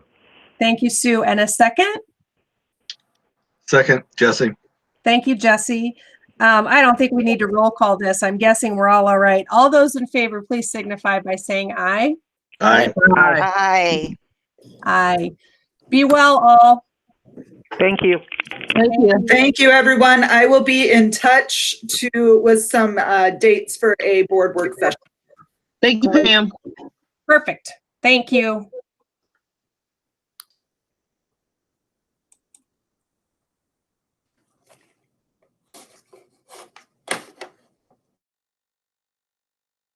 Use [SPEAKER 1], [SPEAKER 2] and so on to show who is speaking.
[SPEAKER 1] Thank you, Sue. And a second?
[SPEAKER 2] Second, Jesse.
[SPEAKER 1] Thank you, Jesse. Um, I don't think we need to roll call this. I'm guessing we're all all right. All those in favor, please signify by saying aye.
[SPEAKER 2] Aye.
[SPEAKER 3] Aye.
[SPEAKER 4] Aye.
[SPEAKER 1] Aye. Be well, all.
[SPEAKER 3] Thank you.
[SPEAKER 5] Thank you.
[SPEAKER 6] Thank you, everyone. I will be in touch to, with some uh, dates for a board work session.
[SPEAKER 5] Thank you, Pam.
[SPEAKER 1] Perfect. Thank you.